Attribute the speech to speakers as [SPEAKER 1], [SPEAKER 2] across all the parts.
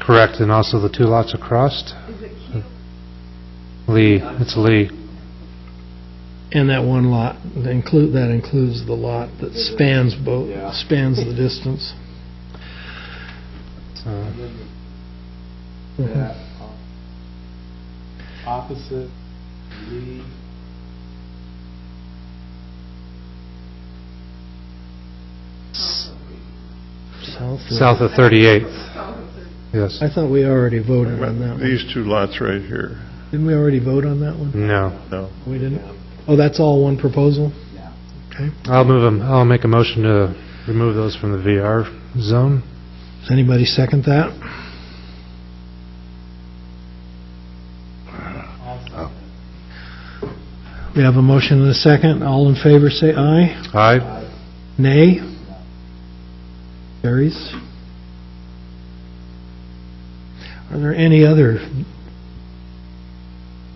[SPEAKER 1] Correct, and also the two lots across?
[SPEAKER 2] Hmm.
[SPEAKER 1] Lee, it's Lee.
[SPEAKER 3] And that one lot, that include, that includes the lot that spans both, spans the distance.
[SPEAKER 1] So,
[SPEAKER 3] Mhm.
[SPEAKER 4] Opposite, Lee.
[SPEAKER 3] South of-
[SPEAKER 1] South of 38th. Yes.
[SPEAKER 3] I thought we already voted on that one.
[SPEAKER 5] These two lots right here,
[SPEAKER 3] Didn't we already vote on that one?
[SPEAKER 1] No.
[SPEAKER 5] no.
[SPEAKER 3] We didn't? Oh, that's all one proposal?
[SPEAKER 4] Yeah.
[SPEAKER 3] Okay.
[SPEAKER 1] I'll move them, I'll make a motion to remove those from the VR zone.
[SPEAKER 3] Does anybody second that?
[SPEAKER 2] Oh.
[SPEAKER 3] We have a motion and a second. All in favor, say aye.
[SPEAKER 1] Aye.
[SPEAKER 3] Nay? Carries. Are there any other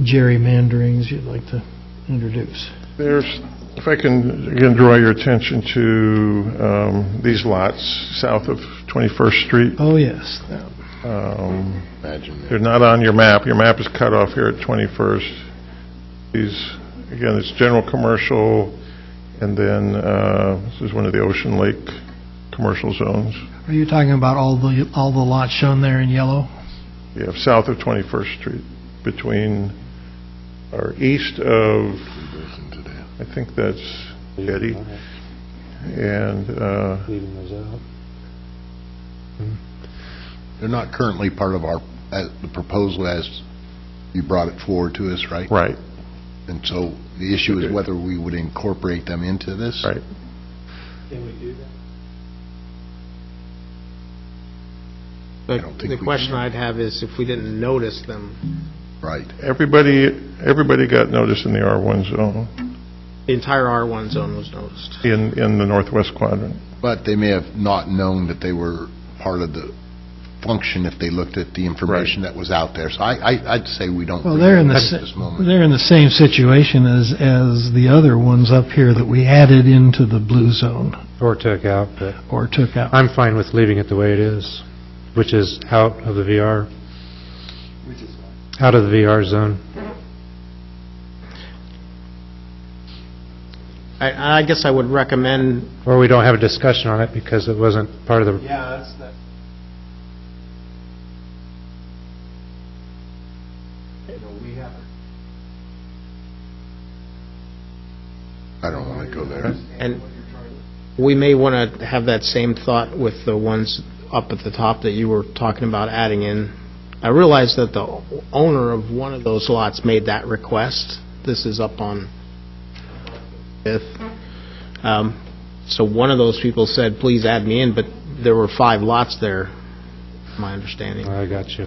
[SPEAKER 3] gerrymanderings you'd like to introduce?
[SPEAKER 5] There's, if I can, again, draw your attention to um, these lots south of 21st Street.
[SPEAKER 3] Oh, yes.
[SPEAKER 5] Um, They're not on your map. Your map is cut off here at 21st. These, again, it's general commercial, and then uh, this is one of the Ocean Lake commercial zones.
[SPEAKER 3] Are you talking about all the, all the lots shown there in yellow?
[SPEAKER 5] You have south of 21st Street, between, or east of, I think that's Getty, and uh,
[SPEAKER 1] Leaving those out.
[SPEAKER 2] They're not currently part of our, uh, the proposal as you brought it forward to us, right?
[SPEAKER 5] Right,
[SPEAKER 2] And so the issue
[SPEAKER 5] Okay.
[SPEAKER 2] is whether we would incorporate them into this?
[SPEAKER 5] right.
[SPEAKER 4] Can we do that?
[SPEAKER 2] I don't think
[SPEAKER 6] The
[SPEAKER 2] we
[SPEAKER 6] question
[SPEAKER 2] can.
[SPEAKER 6] I'd have is if we didn't notice them,
[SPEAKER 2] Right.
[SPEAKER 5] Everybody, everybody got notice in the R1 zone,
[SPEAKER 6] the entire R1 zone was noticed.
[SPEAKER 5] in, in the northwest quadrant.
[SPEAKER 2] But they may have not known that they were part of the function if they looked at the information that was out there. So I, I- I'd say we don't.
[SPEAKER 3] Well, they're in the,
[SPEAKER 2] at
[SPEAKER 3] sa-
[SPEAKER 2] this moment.
[SPEAKER 3] they're in the same situation as, as the other ones up here that we added into the blue zone
[SPEAKER 1] Or took out, but
[SPEAKER 3] or took out.
[SPEAKER 1] I'm fine with leaving it the way it is, which is out of the VR,
[SPEAKER 4] Which is fine.
[SPEAKER 1] out of the VR zone.
[SPEAKER 6] I, I guess I would recommend,
[SPEAKER 1] Or we don't have a discussion on it because it wasn't part of the,
[SPEAKER 4] Yeah, that's, that. You know, we have.
[SPEAKER 2] I don't want to go there.
[SPEAKER 6] and we may want to have that same thought with the ones up at the top that you were talking about adding in. I realize that the owner of one of those lots made that request. This is up on Fifth. Um, So one of those people said, please add me in, but there were five lots there, my understanding.
[SPEAKER 1] I got you.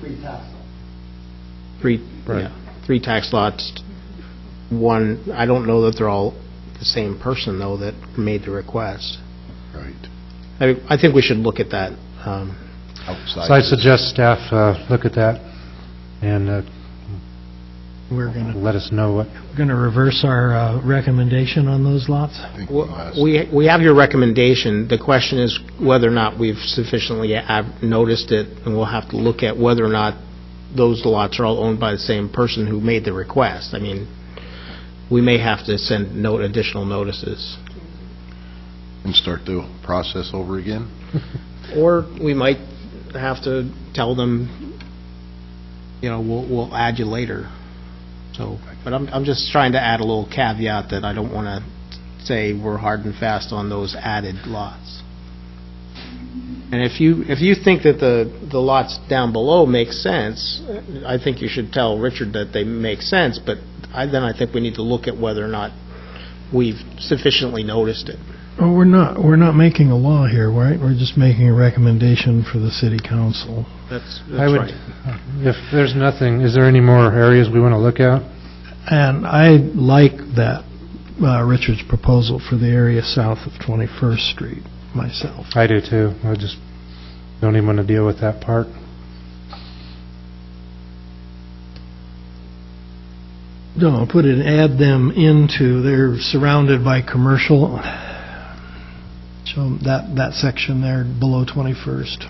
[SPEAKER 6] Three,
[SPEAKER 1] Right.
[SPEAKER 6] yeah, three tax lots, one, I don't know that they're all the same person, though, that made the request.
[SPEAKER 2] Right.
[SPEAKER 6] I, mean, I think we should look at that. um,
[SPEAKER 2] Outside.
[SPEAKER 1] So I
[SPEAKER 2] of this.
[SPEAKER 1] suggest staff uh, look at that and uh,
[SPEAKER 3] We're gonna
[SPEAKER 1] let us know what,
[SPEAKER 3] Going to reverse our uh, recommendation on those lots?
[SPEAKER 2] I think
[SPEAKER 6] w-
[SPEAKER 2] last-
[SPEAKER 6] We, we have your recommendation. The question is whether or not we've sufficiently ab- noticed it, and we'll have to look at whether or not those lots are all owned by the same person who made the request. I mean, we may have to send note, additional notices.
[SPEAKER 2] And start the process over again?
[SPEAKER 6] Or we might have to tell them, you know, we'll, we'll add you later. So, but I'm, I'm just trying to add a little caveat that I don't want to say we're hard and fast on those added lots. And if you, if you think that the, the lots down below make sense, I think you should tell Richard that they make sense, but I, then I think we need to look at whether or not we've sufficiently noticed it.
[SPEAKER 3] Oh, we're not, we're not making a law here, right? We're just making a recommendation for the city council.
[SPEAKER 6] That's,
[SPEAKER 1] I would- if there's nothing, is there any more areas we want to look at?
[SPEAKER 3] And I like that, uh, Richard's proposal for the area south of 21st Street myself.
[SPEAKER 1] I do too. I just don't even want to deal with that part.
[SPEAKER 3] No, put it, add them into, they're surrounded by commercial, so that, that section there below 21st.